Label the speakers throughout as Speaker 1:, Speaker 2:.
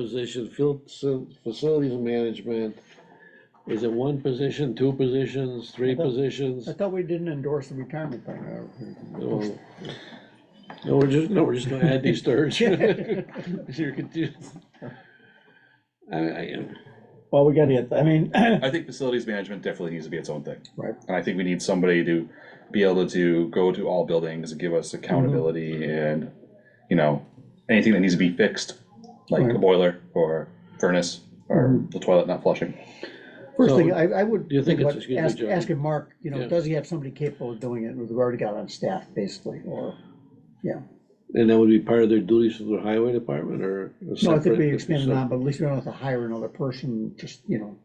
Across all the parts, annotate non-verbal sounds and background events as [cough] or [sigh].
Speaker 1: position, field facil- facilities management. Is it one position, two positions, three
Speaker 2: thought-
Speaker 1: positions?
Speaker 2: I thought we didn't endorse the retirement thing.
Speaker 1: No, No, we're just, no, we're just gonna add these
Speaker 2: [laughs]
Speaker 1: thirds. [laughs] You're confused. I, I,
Speaker 2: Well, we gotta get, I mean, [clears throat]
Speaker 3: I think facilities management definitely needs to be its own thing.
Speaker 2: Right.
Speaker 3: And I think we need somebody to be able to go to all buildings and give us
Speaker 2: Mm-hmm.
Speaker 3: accountability and, you know, anything that needs to be fixed, like a
Speaker 2: Right. Mm-hmm.
Speaker 3: boiler or furnace or the toilet not flushing.
Speaker 2: first
Speaker 1: So,
Speaker 2: thing, I, I would.
Speaker 1: do you think it's-
Speaker 2: about-
Speaker 1: excuse me,
Speaker 2: ask-
Speaker 1: Joe.
Speaker 2: Asking Mark, you know,
Speaker 1: Yeah.
Speaker 2: does he have somebody capable of doing it, we've already got on staff, basically, or, yeah.
Speaker 1: and that would be part of their duties for the highway department or? a
Speaker 2: No, I think
Speaker 1: separate-
Speaker 2: we expanded on, but at least we don't have to hire another person, just, you know,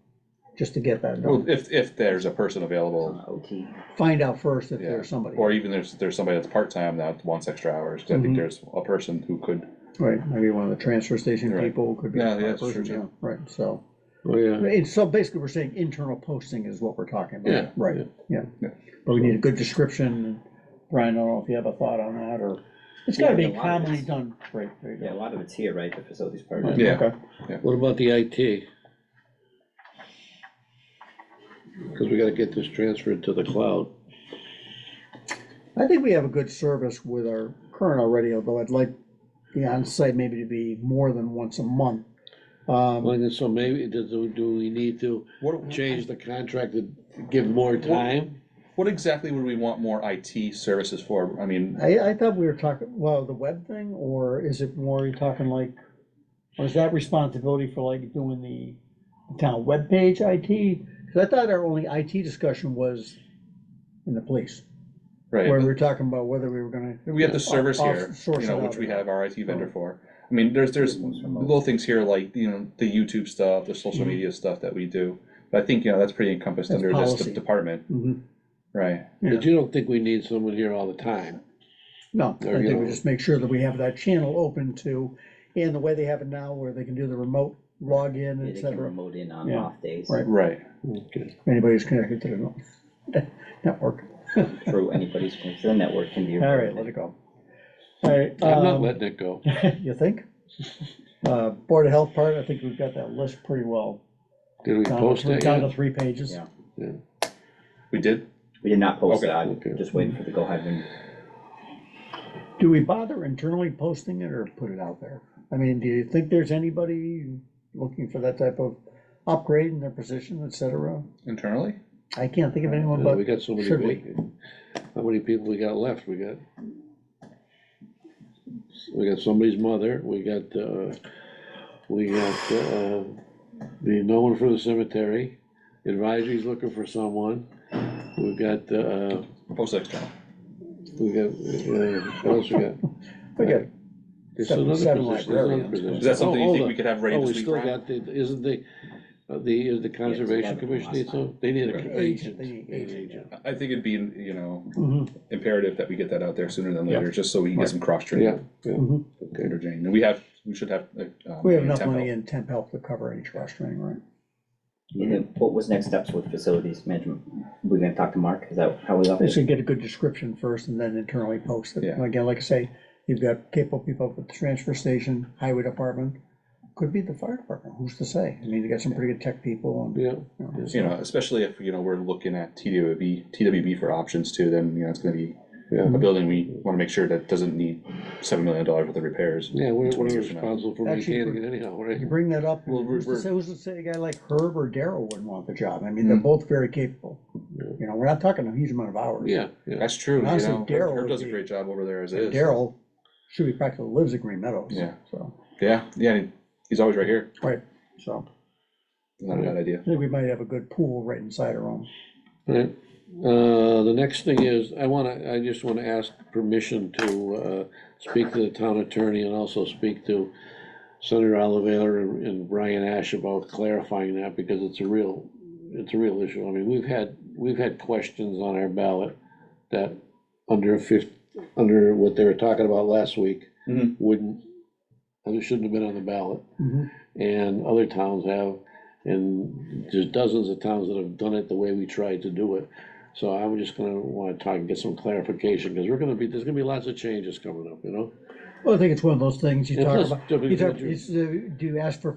Speaker 2: just to get that
Speaker 3: Well,
Speaker 2: done.
Speaker 3: if, if there's a person available,
Speaker 4: OT.
Speaker 2: Find out first if
Speaker 3: Yeah.
Speaker 2: there's somebody,
Speaker 3: or even there's, there's somebody that's part-time that wants extra hours, 'cause I
Speaker 2: Mhm.
Speaker 3: think there's a person who could,
Speaker 2: right, maybe one of the transfer station
Speaker 3: Right.
Speaker 2: people could be.
Speaker 3: Yeah,
Speaker 2: a
Speaker 3: that's true,
Speaker 2: person,
Speaker 3: too.
Speaker 2: yeah, Right, so,
Speaker 1: Oh, yeah,
Speaker 2: and so basically, we're saying internal posting is what we're talking about.
Speaker 1: Yeah.
Speaker 2: Right, yeah,
Speaker 3: Yeah.
Speaker 2: but we need a good description, Brian, I don't know if you have a thought on that, or, it's gotta
Speaker 4: Yeah,
Speaker 2: be
Speaker 4: a lot of
Speaker 2: commonly
Speaker 4: it's-
Speaker 2: done, right, right.
Speaker 4: Yeah, a lot of it's here, right, the facilities part.
Speaker 2: Right,
Speaker 3: Yeah.
Speaker 2: okay.
Speaker 1: what about the IT? Cause we gotta get this transferred to the cloud.
Speaker 2: I think we have a good service with our current already, although I'd like the onsite maybe to be more than once a month. Um,
Speaker 1: Well, and so maybe, do, do we need to
Speaker 3: what,
Speaker 1: change the contract to give more time?
Speaker 3: what exactly would we want more IT services for? I mean,
Speaker 2: I, I thought we were talking, well, the web thing, or is it more, you're talking like, or is that responsibility for like doing the town webpage IT? Because I thought our only IT discussion was in the police,
Speaker 3: right.
Speaker 2: where we were talking about whether we were gonna,
Speaker 3: We have the servers
Speaker 2: I'll- I'll
Speaker 3: here,
Speaker 2: source
Speaker 3: you
Speaker 2: it
Speaker 3: know,
Speaker 2: out.
Speaker 3: which we have our IT vendor for. I mean, there's, there's little things here like, you know, the YouTube stuff, the social
Speaker 1: Mm-hmm.
Speaker 2: Mhm.
Speaker 3: media stuff that we do. But I think, you know, that's pretty encompassed
Speaker 2: That's
Speaker 3: under this
Speaker 2: policy.
Speaker 3: de- department,
Speaker 2: Mhm.
Speaker 3: right?
Speaker 1: But you don't think we need someone here all the time?
Speaker 2: No,
Speaker 1: There
Speaker 2: I
Speaker 1: you
Speaker 2: think we
Speaker 1: go.
Speaker 2: just make sure that we have that channel open to, and the way they have it now, where they can do the remote login,
Speaker 4: Yeah,
Speaker 2: et
Speaker 4: They can
Speaker 2: cetera.
Speaker 4: remote in on
Speaker 2: Yeah.
Speaker 4: off days
Speaker 2: Right.
Speaker 3: Right.
Speaker 1: Okay.
Speaker 2: if anybody's connected to the no- [laughs] network.
Speaker 4: through anybody's, the network can be.
Speaker 2: All right, let it go. All right.
Speaker 1: I'm not
Speaker 2: um,
Speaker 1: letting it go.
Speaker 2: You think? Uh, Board of Health part, I think we've got that list pretty well.
Speaker 1: Did we
Speaker 2: down to
Speaker 1: post
Speaker 2: three-
Speaker 1: that
Speaker 2: Down
Speaker 1: yet?
Speaker 2: to three pages.
Speaker 4: Yeah.
Speaker 3: We did?
Speaker 4: We did not post it,
Speaker 3: Okay,
Speaker 4: I'm
Speaker 1: okay.
Speaker 4: just waiting for the go ahead and,
Speaker 2: Do we bother internally posting it or put it out there? I mean, do you think there's anybody looking for that type of upgrade in their position, et cetera?
Speaker 3: Internally?
Speaker 2: I can't think of anyone,
Speaker 1: Uh,
Speaker 2: but
Speaker 1: We got so many
Speaker 2: should we?
Speaker 1: vacant. How many people we got left? We got. We got somebody's mother, we got, uh, we got, uh, the, no one for the cemetery. Advisory's looking for someone. We've got, uh,
Speaker 3: Post external.
Speaker 1: we got, uh, what else we got?
Speaker 2: we got
Speaker 1: There's
Speaker 2: Seven-
Speaker 1: another position,
Speaker 2: seven
Speaker 1: there's another
Speaker 2: librarians.
Speaker 1: position.
Speaker 3: Is that something
Speaker 1: Oh,
Speaker 3: you
Speaker 1: hold
Speaker 3: think we
Speaker 1: on.
Speaker 3: could have ready
Speaker 1: Oh, we
Speaker 3: this week,
Speaker 1: still
Speaker 3: Brian?
Speaker 1: got the, isn't the, uh, the, is the conservation
Speaker 4: eleven from
Speaker 1: commission, need
Speaker 4: last
Speaker 1: some- they need
Speaker 3: Right.
Speaker 1: an
Speaker 2: agent,
Speaker 1: agent.
Speaker 2: they need agent, yeah.
Speaker 3: I think it'd be, you know,
Speaker 2: Mhm.
Speaker 3: imperative that we get that out there sooner than
Speaker 2: Yeah.
Speaker 3: later, just so we can get some cross
Speaker 1: Yeah,
Speaker 3: training.
Speaker 1: yeah,
Speaker 2: Mhm.
Speaker 1: okay.
Speaker 3: Interjane. And we have, we should have. like, um,
Speaker 2: We have enough
Speaker 3: tempo.
Speaker 2: money in temp help to cover any trash training, right?
Speaker 4: and then what was next steps with facilities management? We're gonna talk to Mark, is that how we left
Speaker 2: They
Speaker 4: it?
Speaker 2: should get a good description first and then internally post it.
Speaker 3: Yeah.
Speaker 2: And Again, like I say, you've got capable people at the transfer station, highway department, could be the fire department, who's to say? I mean, you got some pretty good tech people and,
Speaker 1: Yeah,
Speaker 2: you know,
Speaker 3: You know, especially if, you know, we're looking at TWB, TWB for options too, then, you know, it's gonna be
Speaker 1: yeah,
Speaker 3: a building, we wanna make sure that doesn't need seven million dollars worth of repairs.
Speaker 1: yeah, we're, we're
Speaker 3: 20 years from now.
Speaker 1: responsible for
Speaker 2: Actually,
Speaker 1: maintaining it anyhow, right?
Speaker 2: you bring that up,
Speaker 3: Well, we're-
Speaker 2: who's to
Speaker 3: we're-
Speaker 2: say, who's to say a guy like Herb or Daryl wouldn't want the job? I mean, they're both very capable.
Speaker 1: Yeah.
Speaker 2: You know, we're not talking a huge amount of hours.
Speaker 1: Yeah, yeah,
Speaker 3: That's true, you
Speaker 2: And honestly,
Speaker 3: know,
Speaker 2: Daryl
Speaker 3: Herb- Herb
Speaker 2: would
Speaker 3: does a
Speaker 2: be-
Speaker 3: great job over there as is.
Speaker 2: Daryl should be practically lives at Green Meadows.
Speaker 3: Yeah.
Speaker 2: So,
Speaker 3: Yeah, yeah, and he's always right here,
Speaker 2: right, so
Speaker 3: not a bad idea.
Speaker 2: I think we might have a good pool right inside our own.
Speaker 1: right. Uh, the next thing is, I wanna, I just wanna ask permission to, uh, speak to the town attorney and also speak to Senator Oliver and and Brian Ash about clarifying that, because it's a real, it's a real issue. I mean, we've had, we've had questions on our ballot that under fif, under what they were talking about last week,
Speaker 3: Mhm.
Speaker 1: wouldn't, and it shouldn't have been on the ballot.
Speaker 2: Mhm.
Speaker 1: And other towns have, and there's dozens of towns that have done it the way we tried to do it. So I'm just gonna wanna talk and get some clarification, because we're gonna be, there's gonna be lots of changes coming up, you know?
Speaker 2: Well, I think it's one of those things you
Speaker 1: Yeah,
Speaker 2: talk
Speaker 1: plus,
Speaker 2: about,
Speaker 1: W-
Speaker 2: you talk,
Speaker 1: W-
Speaker 2: it's, uh, do you ask for